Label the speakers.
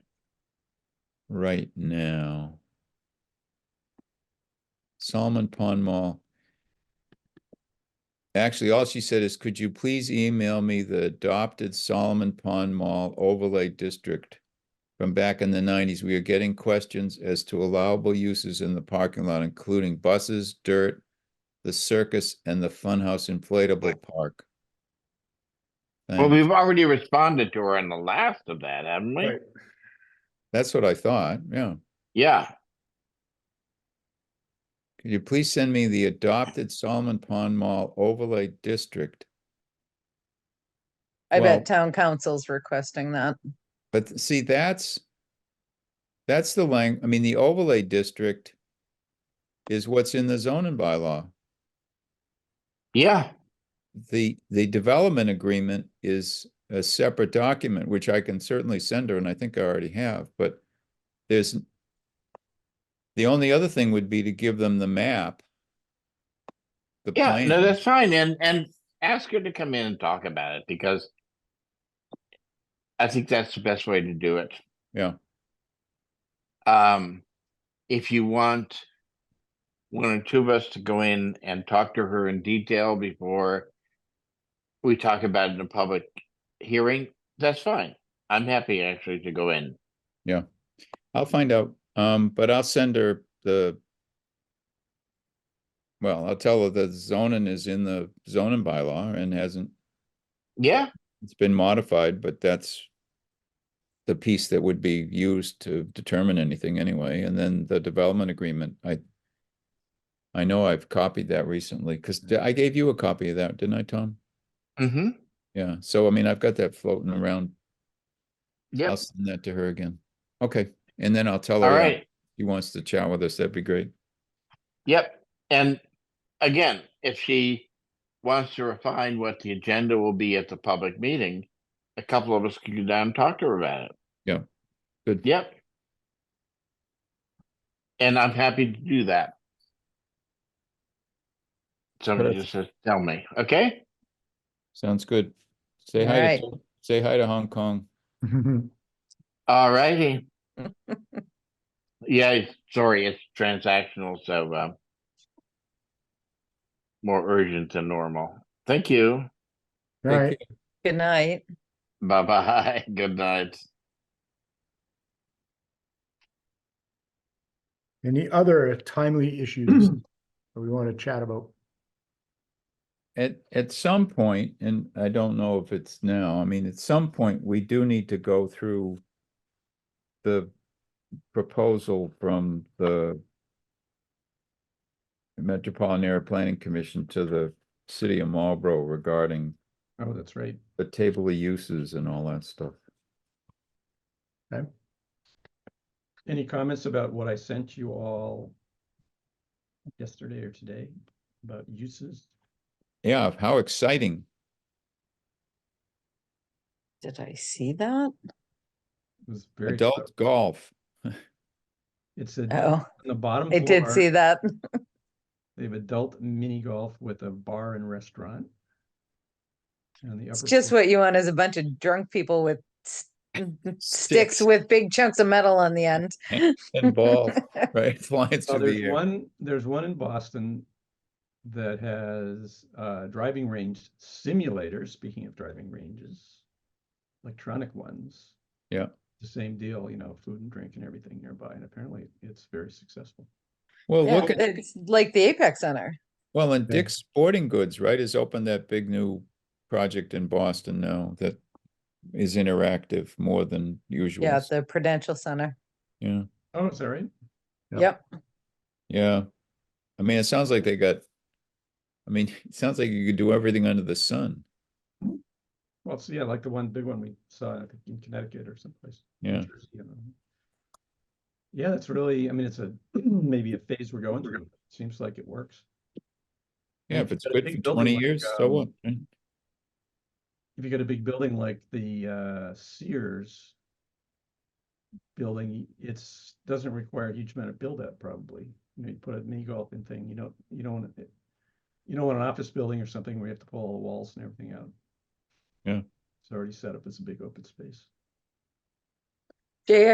Speaker 1: right now. Solomon Pond Mall. Actually, all she said is, could you please email me the adopted Solomon Pond Mall overlay district? From back in the nineties, we are getting questions as to allowable uses in the parking lot, including buses, dirt, the circus and the funhouse inflatable park.
Speaker 2: Well,
Speaker 1: Thanks.
Speaker 2: we've already responded to her on the last of that, haven't we?
Speaker 3: Right.
Speaker 1: That's what I thought, yeah.
Speaker 2: Yeah,
Speaker 1: Could you please send me the adopted Solomon Pond Mall overlay district?
Speaker 4: I
Speaker 1: Well-
Speaker 4: bet town council's requesting that.
Speaker 1: But th- see, that's, that's the lang, I mean, the overlay district is what's in the zoning bylaw.
Speaker 2: yeah,
Speaker 1: The, the development agreement is a separate document, which I can certainly send her, and I think I already have, but there's the only other thing would be to give them the map. the
Speaker 2: yeah, no,
Speaker 1: plan.
Speaker 2: that's fine, and, and ask her to come in and talk about it, because I think that's the best way to do it.
Speaker 1: Yeah.
Speaker 2: Um, if you want one or two of us to go in and talk to her in detail before we talk about it in a public hearing, that's fine. I'm happy actually to go in.
Speaker 1: I'll find out, um, but I'll send her the. Well, I'll tell her that zoning is in the zoning bylaw and hasn't,
Speaker 2: Yeah,
Speaker 1: it's been modified, but that's. The piece that would be used to determine anything anyway, and then the development agreement, I. I know I've copied that recently, cause I gave you a copy of that, didn't I, Tom?
Speaker 2: mm-hmm,
Speaker 1: Yeah, so I mean, I've got that floating around.
Speaker 2: yeah,
Speaker 1: I'll send that to her again. Okay, and then I'll tell her.
Speaker 2: all
Speaker 1: uh,
Speaker 2: right.
Speaker 1: She wants to chat with us, that'd be great.
Speaker 2: Yep, and again, if she wants to refine what the agenda will be at the public meeting, a couple of us can go down and talk to her about it.
Speaker 1: Yeah, good.
Speaker 2: Yep. And I'm happy to do that. Somebody
Speaker 1: Perfect.
Speaker 2: just has to tell me, okay?
Speaker 1: Sounds good. Say hi,
Speaker 4: Alright.
Speaker 1: to say hi to Hong Kong.
Speaker 2: All righty. Yeah, it's- sorry, it's transactional, so, um, more urgent than normal. Thank you.
Speaker 1: Take
Speaker 3: Right.
Speaker 4: Good night.
Speaker 2: Bye bye. Good night.
Speaker 3: Any other timely issues that we want to chat about?
Speaker 1: At, at some point, and I don't know if it's now, I mean, at some point, we do need to go through the proposal from the Metropolitan Area Planning Commission to the city of Marlborough regarding
Speaker 5: Oh, that's right.
Speaker 1: the table of uses and all that stuff.
Speaker 5: Any comments about what I sent you all yesterday or today about uses?
Speaker 1: Yeah, how exciting.
Speaker 4: Did I see that?
Speaker 5: It was very,
Speaker 1: Adult golf.
Speaker 5: it's a, on
Speaker 4: Oh,
Speaker 5: the bottom.
Speaker 4: I did
Speaker 5: floor,
Speaker 4: see that.
Speaker 5: They have adult mini golf with a bar and restaurant. And on the
Speaker 4: It's
Speaker 5: upper
Speaker 4: just
Speaker 5: floor-
Speaker 4: what you want is a bunch of drunk people with s- sticks with big chunks of metal on the end.
Speaker 1: And ball, right? Flying
Speaker 5: Oh,
Speaker 1: through
Speaker 5: there's
Speaker 1: the air.
Speaker 5: one, there's one in Boston that has uh driving range simulators, speaking of driving ranges. Electronic ones.
Speaker 1: Yeah.
Speaker 5: The same deal, you know, food and drink and everything nearby, and apparently it's very successful.
Speaker 1: Well,
Speaker 4: Yeah,
Speaker 1: look at.
Speaker 4: It's like the Apex Center.
Speaker 1: Well, and
Speaker 5: Yeah.
Speaker 1: Dick's Sporting Goods, right, has opened that big new project in Boston now that is interactive more than usual.
Speaker 4: Yeah,
Speaker 1: s-
Speaker 4: the Prudential Center.
Speaker 1: Yeah,
Speaker 5: Oh, is that right?
Speaker 3: Yeah.
Speaker 4: Yep.
Speaker 1: yeah. I mean, it sounds like they got, I mean, it sounds like you could do everything under the sun.
Speaker 5: Well, so yeah, like the one big one we saw, I think in Connecticut or someplace. New
Speaker 1: Yeah,
Speaker 5: Jersey, I don't know. Yeah, that's really, I mean, it's a, maybe a phase we're going through. Seems like it works.
Speaker 1: yeah,
Speaker 5: Yeah,
Speaker 1: if it's
Speaker 5: but a
Speaker 1: good
Speaker 5: big
Speaker 1: for
Speaker 5: building
Speaker 1: twenty
Speaker 5: like,
Speaker 1: years, so
Speaker 5: um,
Speaker 1: what? right?
Speaker 5: if you got a big building like the uh Sears building, it's doesn't require a huge amount of build out probably. You know, you put a mini golf in thing, you don't you don't want it, you don't want an office building or something where you have to pull all the walls and everything out.
Speaker 1: Yeah.
Speaker 5: It's already set up as a big open space.
Speaker 4: Jay,